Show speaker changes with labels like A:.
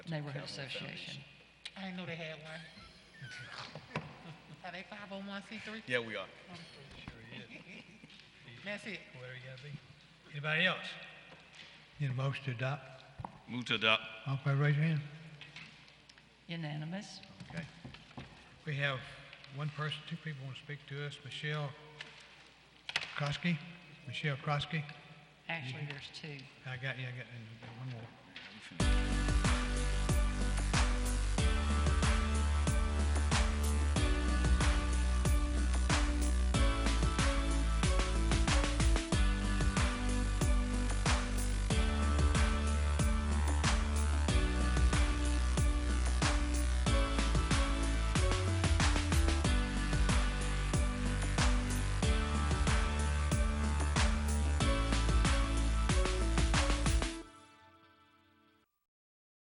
A: Neighborhood Association.
B: I didn't know they had one. Are they five oh one C three?
C: Yeah, we are.
B: That's it.
D: whatever you gotta be. Anybody else? Need a motion to adopt?
C: Move to adopt.
D: All in favor, raise your hand.
A: Unanimous.
D: Okay. We have one person, two people want to speak to us, Michelle Krosky. Michelle Krosky.
A: Actually, there's two.
D: I got, yeah, I got, and one more.